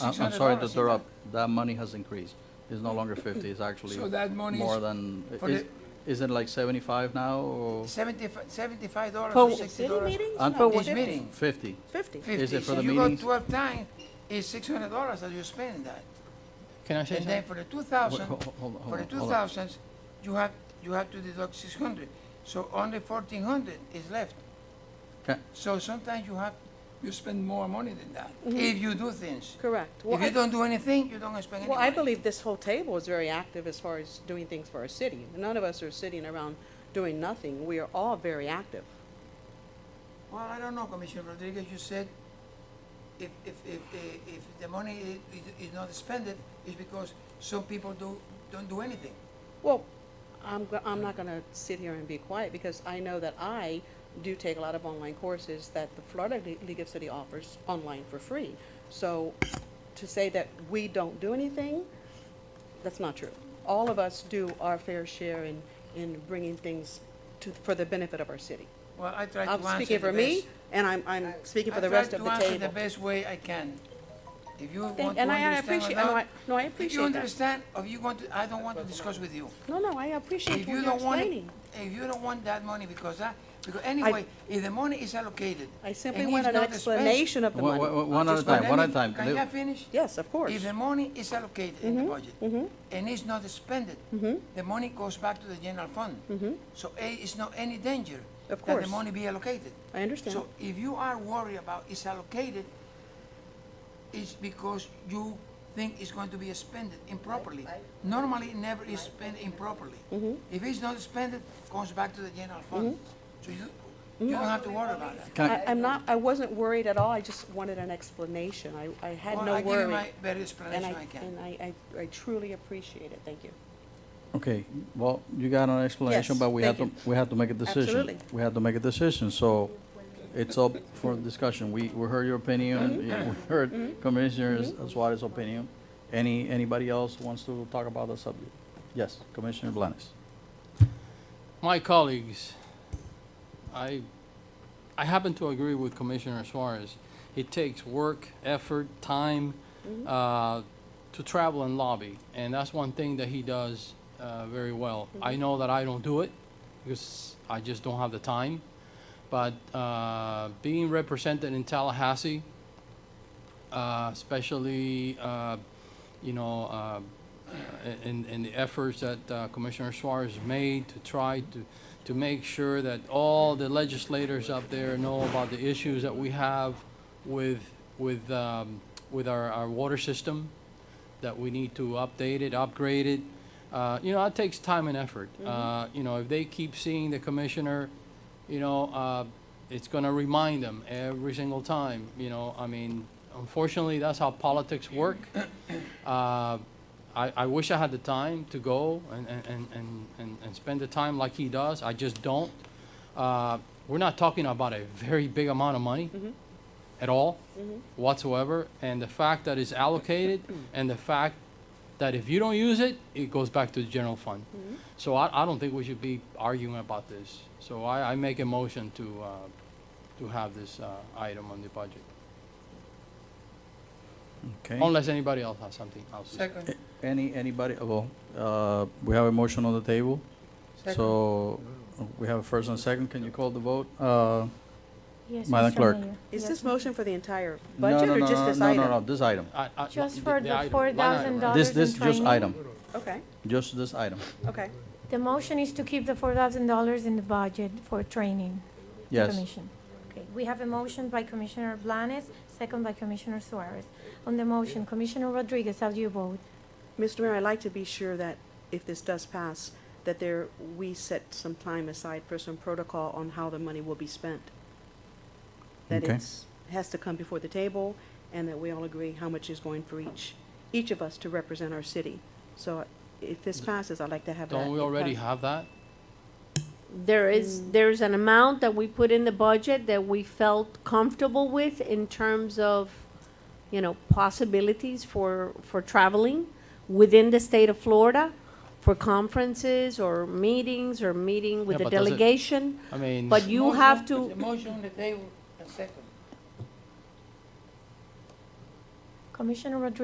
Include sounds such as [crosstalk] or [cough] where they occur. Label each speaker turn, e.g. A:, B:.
A: I'm I'm sorry to
B: $600 in
A: interrupt. That money has increased. It's no longer 50, it's actually
B: So that money is
A: more than,
B: for
A: is-
B: the-
A: is it like 75 now or
B: Seventy-five, seventy-five dollars
C: For
B: or
C: the
B: sixty
C: city
B: dollars.
C: meetings?
A: And-
C: No,
A: For
B: This
C: fifty.
B: meeting,
A: 50?
C: Fifty.
A: Is it
B: fifty,
A: for
B: so
A: the
B: you go
A: meetings?
B: twelve times, it's six hundred dollars that you spend that.
D: Can I say
B: And then
D: something?
B: for the two
A: Wait,
B: thousand,
A: ho- ho- hold on,
B: for
A: hold
B: the
A: on,
B: two
A: hold on.
B: thousands, you have, you have to deduct six hundred, so only fourteen hundred is left.
A: Ca-
B: So sometimes you have, you spend more money than that, if you do things.
C: Mm-hmm. Correct. Well,
B: If you
C: I,
B: don't do anything, you don't spend any
C: well, I
B: money.
C: believe this whole table is very active as far as doing things for our city. None of us are sitting around doing nothing. We are all very active.
B: Well, I don't know, Commissioner Rodriguez, you said if, if, if, eh, if the money i- i- is not spent, it's because some people do, don't do anything.
C: Well, I'm, go- I'm not gonna sit here and be quiet because I know that I do take a lot of online courses that the Florida Le- League of City offers online for free. So to say that we don't do anything, that's not true. All of us do our fair share in, in bringing things to, for the benefit of our city.
B: Well, I try to answer
C: I'm
B: the best.
C: speaking for me and I'm, I'm speaking for the rest of the
B: I try to answer the
C: table.
B: best way I can. If you want to
C: Thank- And I I
B: understand or
C: appreciate, no,
B: not,
C: I, no, I
B: if you
C: appreciate that.
B: understand, or you want to, I don't want to discuss with you.
C: No, no, I appreciate
B: If
C: what
B: you
C: you're
B: don't want, it-
C: explaining.
B: if you don't want that money, because that, because anyway, if the money is allocated.
C: I simply
B: and
C: want
B: it's
C: an
B: not spent-
C: explanation of the
A: Wha- wha-
C: money.
A: wha- One at a
B: Just one
A: time, one at a
B: minute.
A: time.
B: Can
A: Leave-
B: I finish?
C: Yes, of course. Mm-hmm,
B: If the money is allocated in the budget and it's not expended, the money goes back to the general fund. So A, it's not any danger
C: Mm-hmm. Of
B: that the
C: course.
B: money be allocated.
C: I understand.
B: So if you are worried about it's allocated, it's because you think it's going to be expended improperly. Normally, it never is spent improperly.
C: Mm-hmm.
B: If it's not spent, it goes back to the general fund. So you,
C: Mm-hmm.
B: you don't have to worry about it.
A: Can I-
C: I, I'm not, I wasn't worried at all, I just wanted an explanation, I, I had
B: Well,
C: no
B: I give you
C: worry.
B: my better
C: And
B: explanation I
C: I,
B: can.
C: and I, I I truly appreciate it, thank you.
A: Okay, well, you got an explanation,
C: Yes,
A: but we had to,
C: thank
A: we had to make a decision.
C: Absolutely.
A: We had to make a decision, so it's up for discussion. We, we heard your
C: Mm-hmm.
A: opinion, yeah, we heard Commissioner Suarez's opinion. Any, anybody else wants to talk about the subject? Yes, Commissioner Blanes.
D: My colleagues, I, I happen to agree with Commissioner Suarez. It takes work, effort, time, uh, to travel and lobby, and that's one thing that he does, uh, very well. I know that I don't do it, because I just don't have the time, but, uh, being represented in Tallahassee, uh, especially, uh, you know, uh, in, in the efforts that uh, Commissioner Suarez made to try to, to make sure that all the legislators up there know about the issues that we have with, with, um, with our, our water system, that we need to update it, upgrade it. Uh, you know, it takes time and effort. Uh, you know, if they keep seeing the commissioner, you know, uh, it's going to remind them every single time. You know, I mean, unfortunately, that's how politics work. [coughs] Uh, I, I wish I had the time to go and, and, and- and, and, and spend the time like he does. I just don't. Uh, we're not talking about a very big amount of money at all whatsoever. And the fact that it's allocated and the fact that if you don't use it, it goes back to the general fund. So I, I don't think we should be arguing about this. So I, I make a motion to, uh, to have this, uh, item on the budget.
A: Okay.
D: Unless anybody else has something else. to say.
B: Second,
A: Any, anybody, well, uh, we have a motion on the table.
B: second.
A: So we have a first and a second. Can you call the vote? Uh,
E: Yes,
A: Madam
E: Mr.
A: Clerk.
E: Mayor.
C: Is
E: Yes,
C: this
E: Mr.
C: motion for the entire
A: no,
C: budget
A: no,
C: or
A: no,
C: just
A: no,
C: this
A: no,
C: item?
A: No, no, this item.
D: I- I-
E: Just for the
D: item,
E: four
D: line item,
E: thousand
D: right?
E: dollars
A: This,
E: and
A: this, just
E: 20
A: item,
C: Okay,
A: just this item.
C: okay,
E: The motion is to keep the four thousand dollars in the budget for training. the
A: Yes.
E: commission. Okay, we have a motion by Commissioner Blanes, second by Commissioner Suarez. On the motion, Commissioner Rodriguez, how do you vote?
C: Mr. Mayor, I'd like to be sure that if this does pass, that there, we set some time aside for some protocol on how the money will be spent. That
A: Okay.
C: it's, has to come before the table, and that we all agree how much is going for each, each of us to represent our city. So if this passes, I'd like to have that.
D: Don't we already
C: Okay.
D: have that?
F: There is, there's an amount that we put in the budget that we felt comfortable with in terms of, you know, possibilities for, for traveling within the state of Florida for conferences or meetings or meeting with
D: Yeah,
F: a
D: but does it-
F: delegation.
D: I mean,
F: But you have
B: Motion-
F: to,
B: Motion on the table, and second.
E: Commissioner Rodriguez